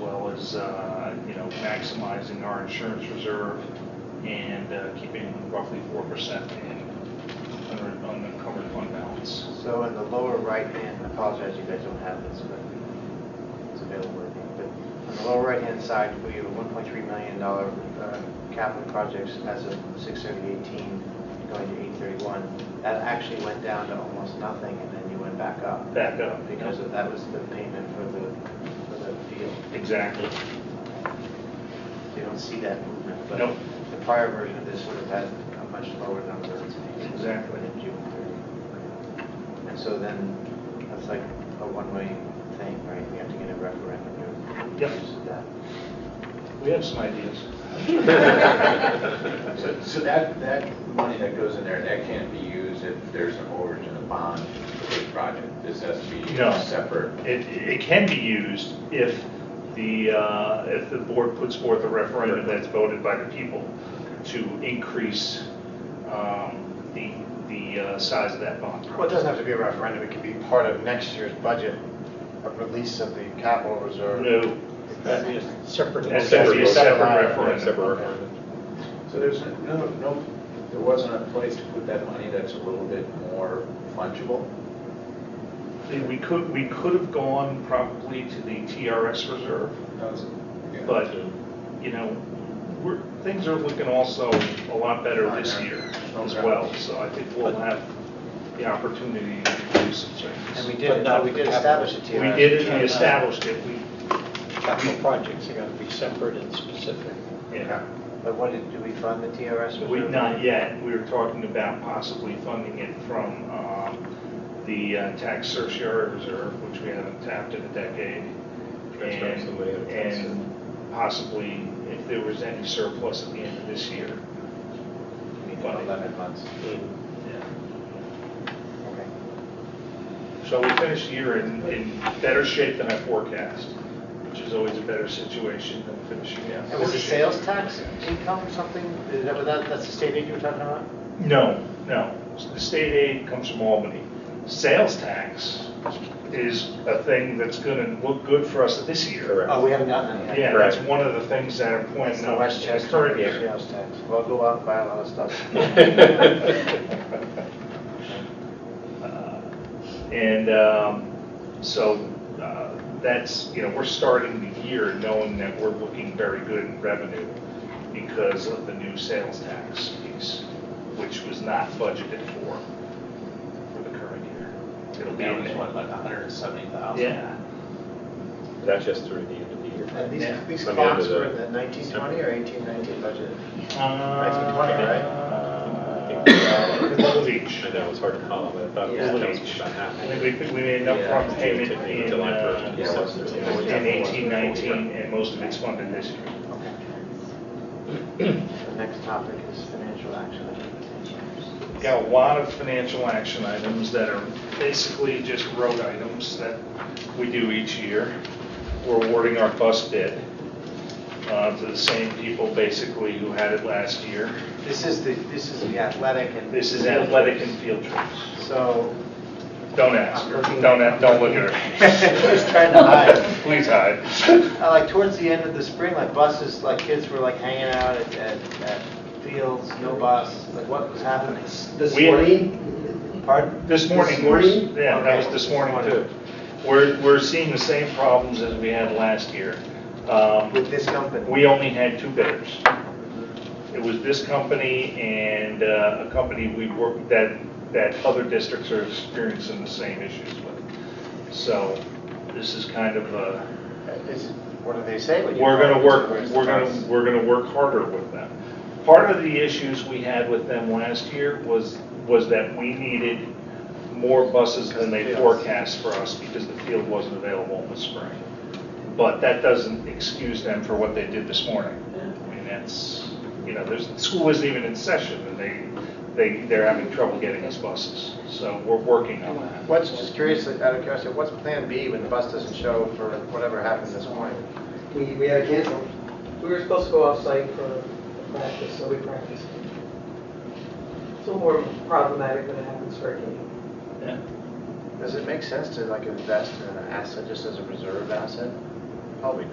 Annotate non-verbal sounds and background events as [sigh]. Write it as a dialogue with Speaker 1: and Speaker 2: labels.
Speaker 1: well as, uh, you know, maximizing our insurance reserve and uh, keeping roughly 4% in under- unencumbered fund balance.
Speaker 2: So in the lower right hand, I apologize, you guys don't have this, but it's available, I think. But on the lower right hand side, we have a $1.3 million uh, capital projects as of 6/30/18 going to 8/31. That actually went down to almost nothing and then you went back up
Speaker 1: Back up.
Speaker 2: because of, that was the payment for the, for the field.
Speaker 1: Exactly.
Speaker 2: So you don't see that movement. but
Speaker 1: Nope.
Speaker 2: The prior version of this would have had a much lower number.
Speaker 1: Exactly.
Speaker 2: Than June 30. And so then, that's like a one-way thing, right? We have to get a referendum. to
Speaker 1: Yep.
Speaker 2: use that.
Speaker 1: We have some ideas.
Speaker 3: So so that, that money that goes in there, that can't be used if there's an overage in the bond for the project. This has to be
Speaker 1: No.
Speaker 3: separate.
Speaker 1: It, it can be used if the, uh, if the board puts forth a referendum that's voted by the people to increase um, the, the uh, size of that bond.
Speaker 4: Well, it doesn't have to be a referendum, it could be part of next year's budget, a release of the capital reserve.
Speaker 1: No,
Speaker 4: That'd be a Separate.
Speaker 1: That's gotta be a separate referendum.
Speaker 4: Separate referendum.
Speaker 3: So there's no, no, there wasn't a place to put that money that's a little bit more fungible?
Speaker 1: we could, we could have gone probably to the TRS reserve, but, you know, we're, things are looking also a lot better this year as well, so I think we'll have the opportunity to do some
Speaker 2: And
Speaker 1: changes.
Speaker 2: we
Speaker 4: But
Speaker 2: did,
Speaker 4: not
Speaker 2: we
Speaker 4: the
Speaker 2: did
Speaker 4: capital.
Speaker 2: establish a
Speaker 1: We
Speaker 2: TRS.
Speaker 1: did it, we established it, we,
Speaker 4: Capital projects are going to be separate and specific.
Speaker 1: yeah.
Speaker 2: But what did, do we fund the TRS?
Speaker 1: We,
Speaker 2: reserve?
Speaker 1: not yet, we were talking about possibly funding it from um, the uh, tax surcharge reserve, which we haven't tapped in a decade.
Speaker 5: That's right,
Speaker 1: And-
Speaker 5: somebody had a tax
Speaker 1: And possibly, if there was any surplus at the end of this year.
Speaker 2: You mean Eleven months. Okay.
Speaker 1: So we finished the year in, in better shape than I forecast, which is always a better situation than finishing out.
Speaker 2: And was the sales tax income something, is that, that- that's the state aid you were talking about?
Speaker 1: No, no. The state aid comes from Albany. Sales tax is a thing that's going to look good for us this year.
Speaker 5: Correct.
Speaker 2: Oh, we haven't gotten that yet.
Speaker 1: Yeah, that's one of the things that are
Speaker 2: That's
Speaker 1: pointing
Speaker 2: the
Speaker 1: out.
Speaker 2: Westchester
Speaker 1: Current year.
Speaker 2: sales tax. Well, go out and buy a lot of stuff.
Speaker 1: [laughs] Uh, And um, so uh, that's, you know, we're starting the year knowing that we're looking very good in revenue because of the new sales tax piece, which was not budgeted for, for the current year. It'll be in there.
Speaker 3: like a hundred and seventy thousand.
Speaker 1: Yeah.
Speaker 5: That's just through the end of the
Speaker 2: And
Speaker 5: year.
Speaker 2: these,
Speaker 1: Yeah.
Speaker 2: these
Speaker 5: Let me
Speaker 2: clocks
Speaker 5: into
Speaker 2: were in
Speaker 5: the-
Speaker 2: the nineteen twenty or eighteen nineteen budget?
Speaker 1: Uh,
Speaker 5: right?
Speaker 1: Little Beach.
Speaker 5: I know, it's hard to call, but I thought it
Speaker 1: Little
Speaker 5: was
Speaker 1: Beach.
Speaker 5: about half.
Speaker 1: I think we, we made an upfront payment in,
Speaker 5: July
Speaker 1: uh,
Speaker 5: 1st.
Speaker 3: yeah,
Speaker 5: so it's-
Speaker 3: it's-
Speaker 1: in eighteen nineteen, and most of it's funded this year.
Speaker 2: Okay. The next topic is financial action.
Speaker 1: We've Got a lot of financial action items that are basically just road items that we do each year. We're awarding our bus bid, uh, to the same people basically who had it last year.
Speaker 2: This is the, this is the athletic and.
Speaker 1: This is athletic and field trips.
Speaker 2: So, [laughs]
Speaker 1: Don't ask her, don't, a- don't look at her.
Speaker 2: just trying to hide.
Speaker 1: Please hide.
Speaker 2: Uh, Like towards the end of the spring, like buses, like kids were like hanging out at, at, at fields, no bus, like what was happening?
Speaker 6: This
Speaker 1: We-
Speaker 6: morning,
Speaker 2: Pardon?
Speaker 1: This morning,
Speaker 6: This
Speaker 1: we're,
Speaker 6: morning?
Speaker 1: yeah, that was
Speaker 2: Okay.
Speaker 1: this morning too. We're, we're seeing the same problems as we had last year. Um,
Speaker 2: With this company?
Speaker 1: We only had two bidders. It was this company and uh, a company we work, that, that other districts are experiencing the same issues with. So this is kind of a,
Speaker 4: Is- What do they say when you?
Speaker 1: we're going to work, we're going
Speaker 4: Price.
Speaker 1: to, we're going to work harder with them. Part of the issues we had with them last year was, was that we needed more buses than they forecast for us because the field wasn't available in the spring. But that doesn't excuse them for what they did this morning. I mean, that's, you know, there's, school isn't even in session and they, they, they're having trouble getting us buses. So we're working on that.
Speaker 2: What's, just curious, out of curiosity, what's plan B when the bus doesn't show for whatever happened this morning?
Speaker 6: we, we had canceled. We were supposed to go off-site for practice, so we practiced. It's a little more problematic when it happens for a game.
Speaker 1: Yeah.
Speaker 2: Does it make sense to like invest in an asset just as a reserve asset? Probably